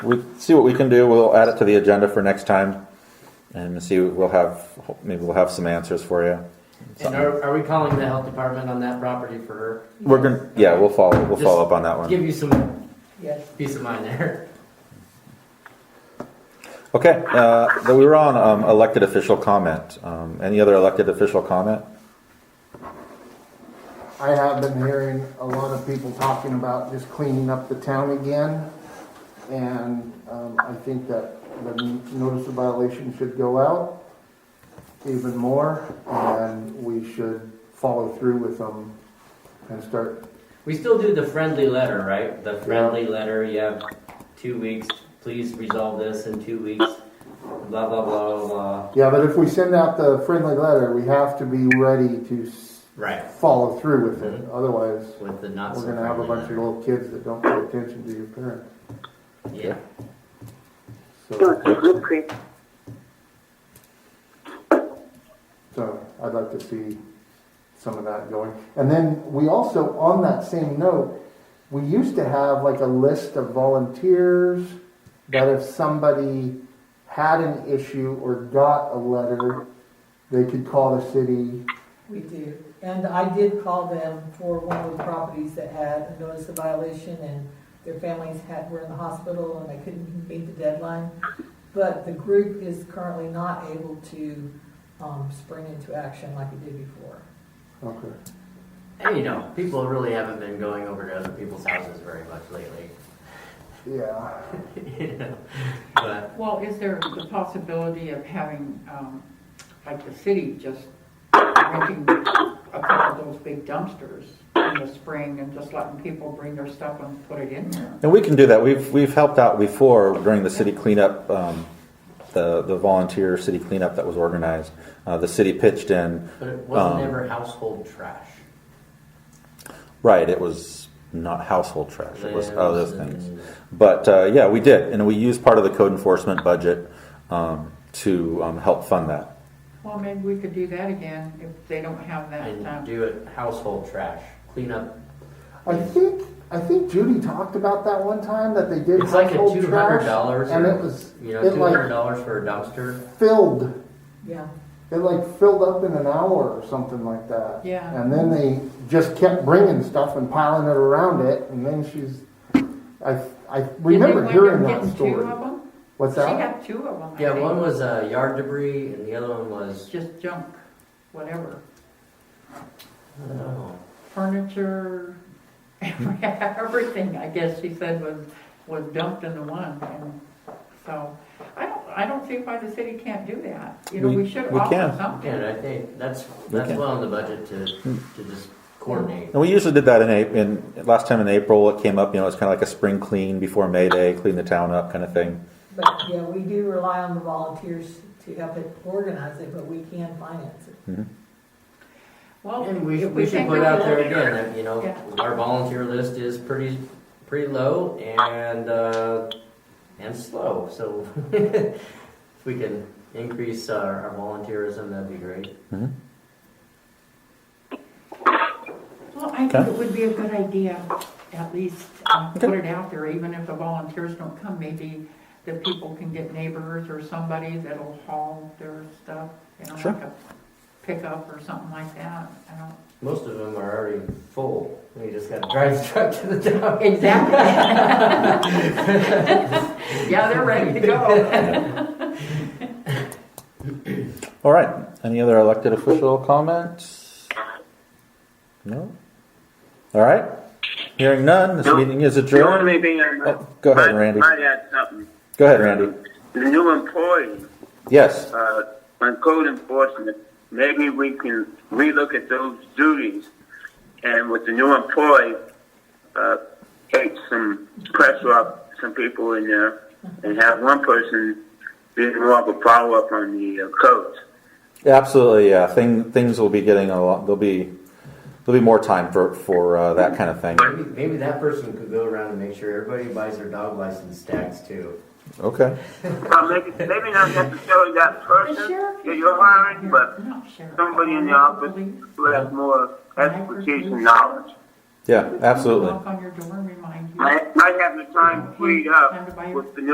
we see what we can do. We'll add it to the agenda for next time, and see. We'll have maybe we'll have some answers for you. And Something. are, are we calling the health department on that property for her? We're gonna yeah. We'll follow. We'll follow up on that one. Give you some Yes. peace of mind there. Okay. Uh, though we were on um, elected official comment. Um, any other elected official comment? I have been hearing a lot of people talking about just cleaning up the town again. And um, I think that the notice of violation should go out even more. And we should follow through with them and start, We still do the friendly letter, right? The friendly letter, you have two weeks, please resolve this in two weeks, blah, blah, blah, blah, blah. yeah, but if we send out the friendly letter, we have to be ready to s- Right. follow through with it. Otherwise, With the Mm-hmm. not so we're gonna have a friendly bunch of letter. little kids that don't pay attention to your parents. Yeah. So, So it's Wood Creek. So I'd like to see some of that going. And then we also, on that same note, we used to have like a list of volunteers that if somebody had an issue or got a letter, they could call the city. We do. And I did call them for one of the properties that had a notice of violation and their families had, were in the hospital and they couldn't meet the deadline. But the group is currently not able to, um, spring into action like it did before. Okay. And you know, people really haven't been going over to other people's houses very much lately. Yeah. you know? But Well, is there the possibility of having, um, like the city just renting a couple of those big dumpsters in the spring and just letting people bring their stuff and put it in there? And we can do that. We've we've helped out before during the city cleanup, um, the the volunteer city cleanup that was organized. Uh, the city pitched in. but it wasn't Um, ever household trash. Right. It was not household trash. It was Lives other things. and- But uh, yeah, we did, and we used part of the code enforcement budget um, to um, help fund that. Well, maybe we could do that again if they don't have that, And um, do it household trash. Clean up. I think I think Judy talked about that one time that they did It's like a household two hundred trash dollars and it was- you know, it two like- hundred dollars for a dumpster. filled. Yeah. It like filled up in an hour or something like that. yeah. And then they just kept bringing stuff and piling it around it, and then she's, I, I remember hearing that story. What's She that? had two of them. I Yeah, think. one was uh, yard debris and the other one was Just junk, whatever, I don't know. furniture, everything, I guess she said was, was dumped in the one. and So, I don't, I don't see why the city can't do that. You know, We- we should we offer can. Again, something. I think that's We that's can. well on the budget to to just coordinate. And we usually did that in, Ap- in last time in April. It came up, you know, it's kind of like a spring clean before May Day, clean the town up, kind of thing. But, yeah, we do rely on the volunteers to help it organize it, but we can finance it. Mm-hmm. Oh, Well, And we, if we should think put of out it- there again that you know Yeah. our volunteer list is pretty pretty low and uh, and slow. So if we can increase our, our volunteerism, that'd be great. Mm-hmm. Well, I think Okay. Ah, it would be a good idea, at least, uh, put Okay. it out there, even if the volunteers don't come, maybe the people can get neighbors or somebody that'll haul their stuff, you know, Sure. like a pickup or something like that, I don't. Most of them are already full. We just got to drive the truck to the dump. Exactly. Yeah, they're ready to go. All right. Any other elected official comments? No. All right. Hearing none, this No. meeting is The only adjourned. thing I Oh, go ahead, might- Randy. Might add something. Go ahead, Randy. The new employee, Yes. uh, on code enforcement, maybe we can relook at those duties. And with the new employee, uh, take some pressure off some people in there and have one person be more of a follow-up on the uh, codes. Absolutely, yeah. Thing, things will be getting a lot. There'll be there'll be more time for for uh, that kind of thing. Maybe, maybe that person could go around and make sure everybody buys their dog license tags too. Okay. Uh, maybe, maybe not necessarily that The person sheriff. that you're hiring, but Not sheriff, somebody in the police. office who has more expertise and knowledge. Yeah, absolutely. Knock on your door and remind you. I, I have the time freed Time to buy up your- with the new